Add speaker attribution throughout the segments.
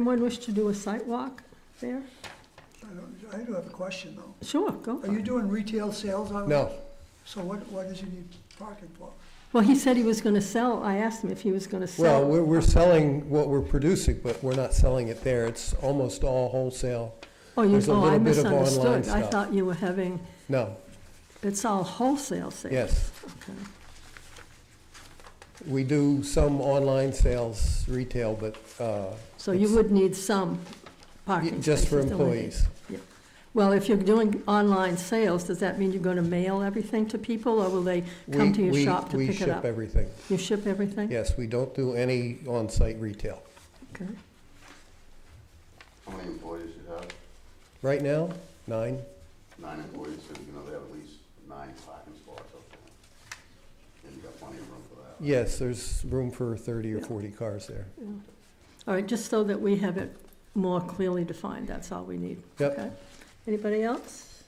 Speaker 1: Anyone wish to do a site walk there?
Speaker 2: I don't- I do have a question, though.
Speaker 1: Sure, go for
Speaker 2: Are you
Speaker 1: it.
Speaker 2: doing retail sales already?
Speaker 3: No,
Speaker 2: So what, what does he need parking for?
Speaker 1: Well, he said he was gonna sell, I asked him if he was gonna
Speaker 3: well,
Speaker 1: sell.
Speaker 3: we're, we're selling what we're producing, but we're not selling it there. It's almost all wholesale.
Speaker 1: Oh, you,
Speaker 3: there's a
Speaker 1: oh, I
Speaker 3: little bit of online
Speaker 1: misunderstood. I
Speaker 3: stuff.
Speaker 1: thought you were having,
Speaker 3: No,
Speaker 1: it's all wholesale sales.
Speaker 3: yes.
Speaker 1: Okay.
Speaker 3: We do some online sales, retail, but, uh,
Speaker 1: So you
Speaker 3: It's-
Speaker 1: would need some parking
Speaker 3: just for
Speaker 1: spaces, don't we?
Speaker 3: employees.
Speaker 1: Well, if you're doing online sales, does that mean you're gonna mail everything to people, or will they
Speaker 3: We-
Speaker 1: come to your
Speaker 3: we-
Speaker 1: shop to
Speaker 3: we
Speaker 1: pick it
Speaker 3: ship
Speaker 1: up?
Speaker 3: everything.
Speaker 1: You ship everything?
Speaker 3: Yes, we don't do any on-site retail.
Speaker 1: Okay.
Speaker 4: How many employees you have?
Speaker 3: Right now, nine,
Speaker 4: Nine employees, so you know they have at least nine parking spots up there. And you got plenty of room for that.
Speaker 3: yes, there's room for thirty or
Speaker 1: Yeah.
Speaker 3: forty cars there.
Speaker 1: All right, just so that we have it more clearly defined, that's all we need.
Speaker 3: Yep.
Speaker 1: Okay. Anybody else?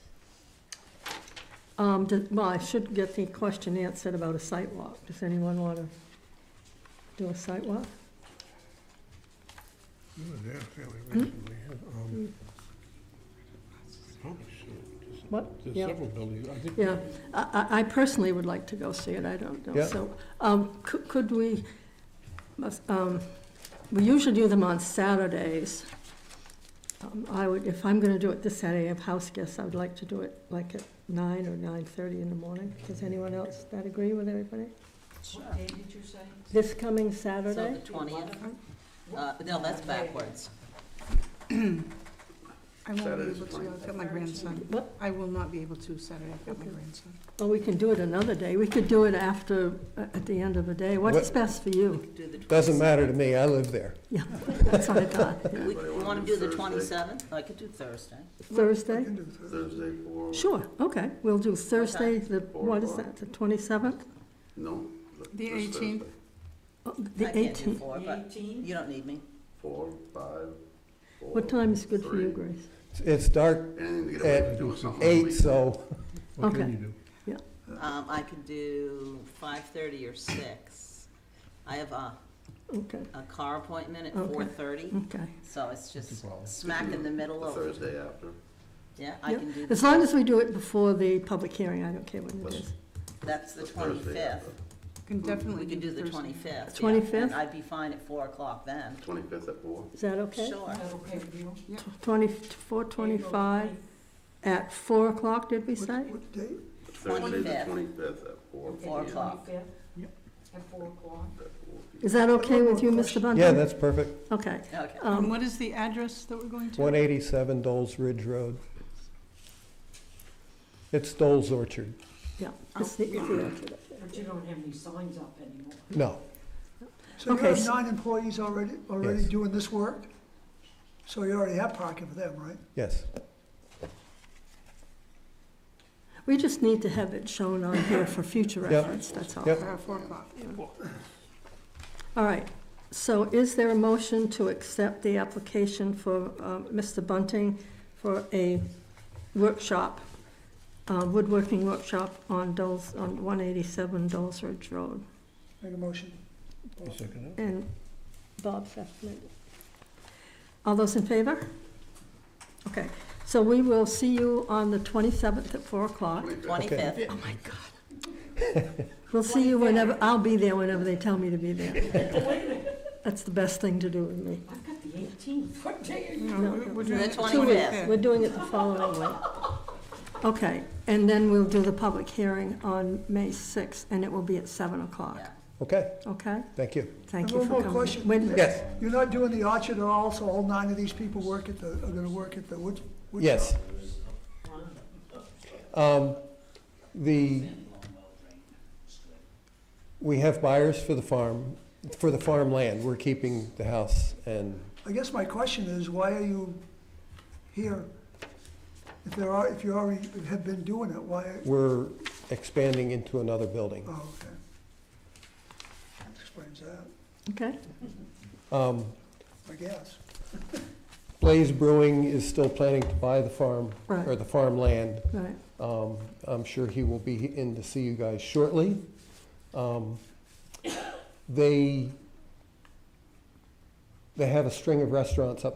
Speaker 1: Um, do- well, I should get the question answered about a site walk. Does anyone want to do a site walk?
Speaker 5: Oh, Yeah, fairly
Speaker 1: Hmm?
Speaker 5: recently, um, probably should. There's-
Speaker 1: What?
Speaker 5: There's
Speaker 1: Yeah.
Speaker 5: several buildings, I think.
Speaker 1: Yeah, I, I I personally would like to go see it, I don't know,
Speaker 3: Yeah.
Speaker 1: so, um, could, could we, must, um, we usually do them on Saturdays. Um, I would, if I'm gonna do it this Saturday, I have house guests, I would like to do it like at nine or nine-thirty in the morning. Does anyone else, that agree with everybody?
Speaker 6: What day did you say?
Speaker 1: This coming
Speaker 6: So
Speaker 1: Saturday?
Speaker 6: the twentieth? Uh, no, that's backwards.
Speaker 7: I won't be
Speaker 4: Saturday's
Speaker 7: able
Speaker 4: the
Speaker 7: to, I've got my grandson.
Speaker 1: What,
Speaker 7: I will not be able to Saturday, I've got my
Speaker 1: Okay.
Speaker 7: grandson.
Speaker 1: well, we can do it another day, we could do it after, at the end of the day, what's
Speaker 3: What-
Speaker 1: best for you?
Speaker 6: Do the
Speaker 3: Doesn't matter to me, I live there.
Speaker 1: Yeah, that's what I thought,
Speaker 6: 20 We,
Speaker 4: Anybody
Speaker 6: you wanna
Speaker 4: wanna do
Speaker 6: do the
Speaker 4: Thursday?
Speaker 6: twenty-seventh? I could do Thursday.
Speaker 1: Thursday?
Speaker 2: I can do that.
Speaker 4: Thursday for?
Speaker 1: Sure, okay, we'll do Thursday, the,
Speaker 4: Four
Speaker 1: what is that,
Speaker 4: o'clock.
Speaker 1: the twenty-seventh? Oh,
Speaker 4: No. th-
Speaker 7: The
Speaker 4: this
Speaker 7: 18th.
Speaker 4: Thursday.
Speaker 1: The
Speaker 6: I can't do
Speaker 1: eighteenth,
Speaker 6: four, but you don't need me.
Speaker 4: Four, five, four.
Speaker 1: what time is good for you,
Speaker 4: three.
Speaker 1: Grace?
Speaker 3: It's dark
Speaker 4: Anything to get away from
Speaker 3: at
Speaker 4: doing something. on the
Speaker 3: eight,
Speaker 4: weekend.
Speaker 3: so,
Speaker 5: What
Speaker 1: Okay.
Speaker 5: can you do?
Speaker 6: Um, I could do five-thirty or six. I have a,
Speaker 1: Okay,
Speaker 6: a car appointment at
Speaker 1: Okay. Mm.
Speaker 6: four-thirty,
Speaker 1: okay,
Speaker 6: so it's
Speaker 5: No
Speaker 6: just
Speaker 5: problem.
Speaker 6: smack in the middle
Speaker 4: The
Speaker 6: of,
Speaker 4: Thursday after.
Speaker 6: yeah, I
Speaker 1: Yeah,
Speaker 6: can do,
Speaker 1: as
Speaker 6: the-
Speaker 1: long as we do it before the public hearing, I don't care when it
Speaker 4: Let's-
Speaker 1: is.
Speaker 6: that's the
Speaker 4: Thursday
Speaker 6: twenty-fifth.
Speaker 4: after.
Speaker 7: Can
Speaker 6: We
Speaker 7: definitely
Speaker 6: could
Speaker 7: do
Speaker 6: do the
Speaker 7: Thursday.
Speaker 6: twenty-fifth.
Speaker 1: 25th?
Speaker 6: I'd be fine at four o'clock then.
Speaker 4: Twenty-fifth at four.
Speaker 1: Is that okay?
Speaker 6: Sure.
Speaker 1: Twenty-four, twenty-five, at four o'clock, did we say?
Speaker 2: What- What date?
Speaker 4: Thursday, the
Speaker 6: 25th.
Speaker 4: twenty-fifth at four.
Speaker 6: Four
Speaker 4: p.m.
Speaker 6: o'clock.
Speaker 8: At four o'clock.
Speaker 4: At four p.m.
Speaker 1: Is that okay with you, Mr. Bunting?
Speaker 3: yeah, that's perfect.
Speaker 1: Okay,
Speaker 6: Okay.
Speaker 7: And
Speaker 1: um,
Speaker 7: what is the address that we're going to?
Speaker 3: One eighty-seven Doles Ridge Road. It's Doles Orchard.
Speaker 1: yeah,
Speaker 6: Oh.
Speaker 1: it's the, it's the orchard up there.
Speaker 8: But you don't have any signs up anymore.
Speaker 3: No,
Speaker 2: So you
Speaker 1: Okay,
Speaker 2: have
Speaker 1: s-
Speaker 2: nine employees already, already
Speaker 3: Yes.
Speaker 2: doing this work? So you already have parking for them, right?
Speaker 3: yes.
Speaker 1: We just need to have it shown on here for future
Speaker 3: Yeah.
Speaker 1: reference, that's all.
Speaker 3: Yep.
Speaker 7: Uh, Four o'clock.
Speaker 1: All right, so is there a motion to accept the application for um, Mr. Bunting for a workshop, uh, woodworking workshop on Dole's, on 187 Dole's Ridge Road?
Speaker 2: Make a motion.
Speaker 5: You second it?
Speaker 1: And Bob seconded. All those in favor? Okay, so we will see you on the 27th at 4 o'clock.
Speaker 6: Twenty-fifth.
Speaker 1: Oh, my God. We'll see you whenever, I'll be there whenever they tell me to be there. That's the best thing to do with me.
Speaker 8: I've got the eighteenth, what day are you?
Speaker 7: No,
Speaker 1: No,
Speaker 7: we-
Speaker 1: no.
Speaker 7: we're doing
Speaker 6: The
Speaker 7: it
Speaker 6: 25th.
Speaker 1: Two weeks,
Speaker 7: Yeah.
Speaker 1: we're doing it the following week. Okay, and then we'll do the public hearing on May 6th, and it will be at 7 o'clock,
Speaker 6: Yeah.
Speaker 3: Okay,
Speaker 1: okay?
Speaker 3: thank you.
Speaker 1: Thank
Speaker 2: And
Speaker 1: you
Speaker 2: one
Speaker 1: for
Speaker 2: more
Speaker 1: coming.
Speaker 2: question.
Speaker 1: Wait a minute.
Speaker 3: Yes,
Speaker 2: You're not doing the orchard at all, so all nine of these people work at the, are gonna work at the wood? wood
Speaker 3: yes.
Speaker 2: shop?
Speaker 3: Um, The, we have buyers for the farm, for the farmland. We're keeping the house and
Speaker 2: I guess my question is, why are you here? If there are, if you already have been doing it, why?
Speaker 3: we're expanding into another building.
Speaker 2: Oh, okay. That Explains that,
Speaker 1: Okay,
Speaker 3: Um,
Speaker 2: I guess.
Speaker 3: Blaze Brewing is still planning to buy the farm, or
Speaker 1: Right.
Speaker 3: the farmland.
Speaker 1: all right.
Speaker 3: Um, I'm sure he will be in to see you guys shortly. Um, They they have a string of restaurants up